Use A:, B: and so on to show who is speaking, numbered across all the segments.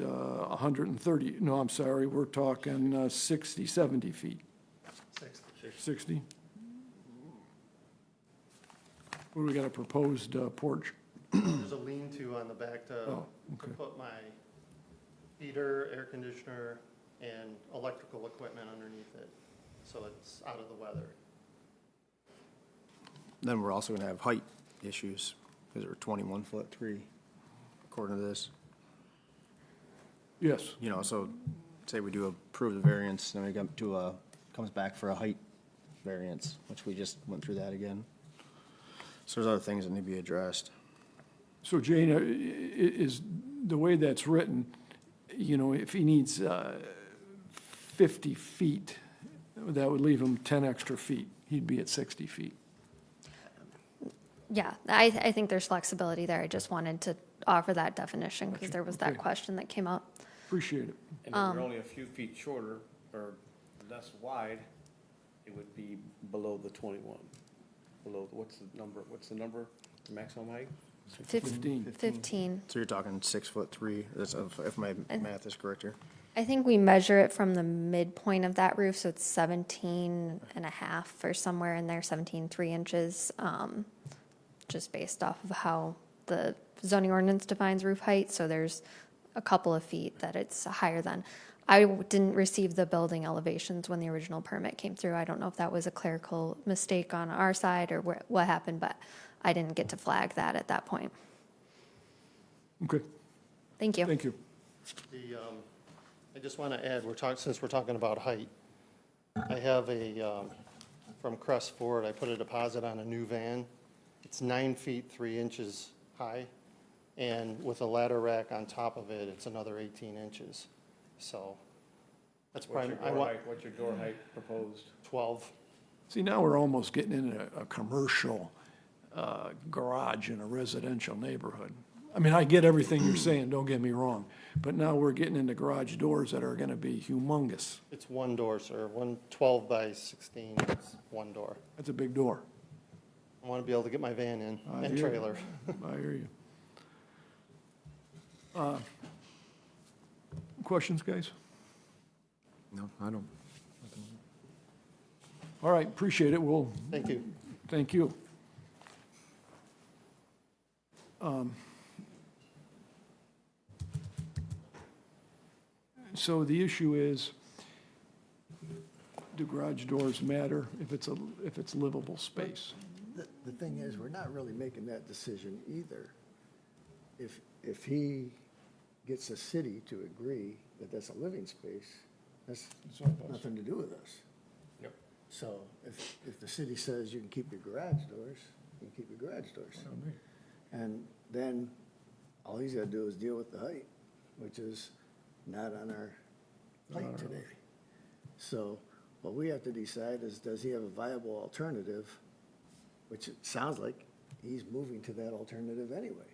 A: uh, 130, no, I'm sorry, we're talking uh, 60, 70 feet. 60? What, do we got a proposed uh, porch?
B: There's a lean-to on the back to
A: Oh,
B: to
A: okay.
B: put my heater, air conditioner, and electrical equipment underneath it, so it's out of the weather.
C: Then we're also going to have height issues because we're 21 foot 3 according to this.
A: Yes,
C: You know, so say we do approve the variance, then we come to a, comes back for a height variance, which we just went through that again. So there's other things that need to be addressed.
A: so Jane, uh, i- i- is, the way that's written, you know, if he needs uh, 50 feet, that would leave him 10 extra feet, he'd be at 60 feet.
D: Yeah, I, I think there's flexibility there. I just wanted to offer that definition because there was that
A: Okay.
D: question that came up.
A: Appreciate it.
E: And if you're only a few feet shorter or less wide, it would be below the twenty-one. Below, what's the number, what's the number, maximum height?
D: Fif-
A: 15.
D: 15.
C: So you're talking 6 foot 3, that's if if my
D: And-
C: math is correct here.
D: I think we measure it from the midpoint of that roof, so it's 17 and a half or somewhere in there, 17, 3 inches, um, just based off of how the zoning ordinance defines roof height, so there's a couple of feet that it's higher than. I w- didn't receive the building elevations when the original permit came through. I don't know if that was a clerical mistake on our side or wh- what happened, but I didn't get to flag that at that point.
A: Okay,
D: Thank you.
A: thank you.
B: The, um, I just want to add, we're talking, since we're talking about height, I have a, um, from Crest Ford, I put a deposit on a new van. It's nine feet, three inches high, and with a ladder rack on top of it, it's another 18 inches. So that's
E: What's
B: probably,
E: your
B: I
E: door
B: want
E: height, what's your door height proposed?
B: 12.
A: See, now we're almost getting into a, a commercial uh, garage in a residential neighborhood. I mean, I get everything you're saying, don't get me wrong, but now we're getting into garage doors that are gonna be humongous.
B: It's one door, sir, one 12 by 16, is one door.
A: That's a big door.
B: I want to be able to get my van in
A: I
B: and
A: hear you.
B: trailer.
A: I hear you. Uh, Questions, guys?
C: No, I don't.
A: All right, appreciate it. We'll,
B: Thank you.
A: thank you. Um, So the issue is, do garage doors matter if it's a, if it's livable space?
F: The, the thing is, we're not really making that decision either. If, if he gets the city to agree that that's a living space, that's nothing to do with us.
E: Yep.
F: So if, if the city says you can keep your garage doors, you can keep your garage doors. And then all he's gotta do is deal with the height, which is not on our plate today. So what we have to decide is, does he have a viable alternative? Which it sounds like he's moving to that alternative anyway.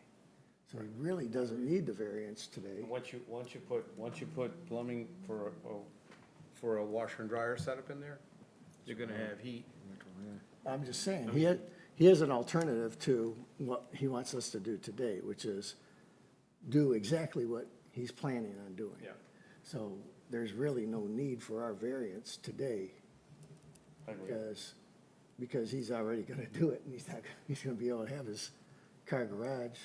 F: So he really doesn't need the variance today.
E: And once you, once you put, once you put plumbing for, a oh, for a washer and dryer setup in there, you're gonna have heat.
F: I'm just saying, he, had- he has an alternative to what he wants us to do today, which is do exactly what he's planning on doing.
E: Yeah.
F: So there's really no need for our variance today
E: I agree.
F: because, because he's already gonna do it and he's not, he's gonna be able to have his car garage,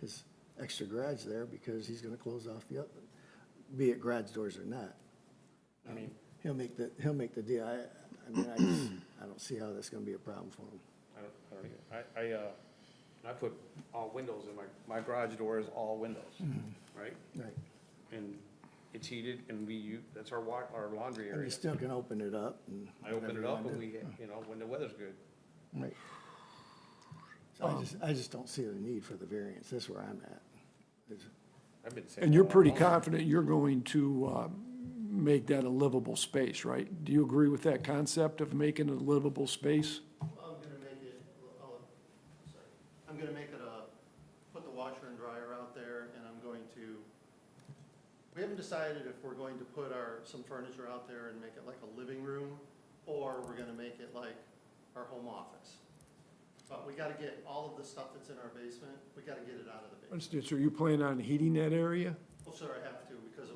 F: his extra garage there because he's gonna close off the, other- be it garage doors or not.
E: I mean,
F: He'll make the, he'll make the deal. I, I mean, I, just- I don't see how that's gonna be a problem for him.
E: I don't, I don't, either. I, I, uh, I put all windows in my, my garage door is all windows, right?
F: Right.
E: And it's heated and we, u- that's our wa, our laundry
F: And
E: area.
F: you still can open it up and.
E: I open it
F: whatever you
E: up
F: wanna
E: and we,
F: do.
E: you know, when the weather's good.
F: Right. So I just, I just don't see the need for the variance. That's where I'm at. It's-
E: I've been saying.
A: And you're
E: that all
A: pretty
E: along.
A: confident you're going to uh, make that a livable space, right? Do you agree with that concept of making it a livable space?
B: I'm gonna make it, oh, sorry. I'm gonna make it a, put the washer and dryer out there, and I'm going to, we haven't decided if we're going to put our, some furniture out there and make it like a living room, or we're gonna make it like our home office. But we gotta get all of the stuff that's in our basement, we gotta get it out of the basement.
A: Understood. So you plan on heating that area?
B: Well, sir, I have to, because of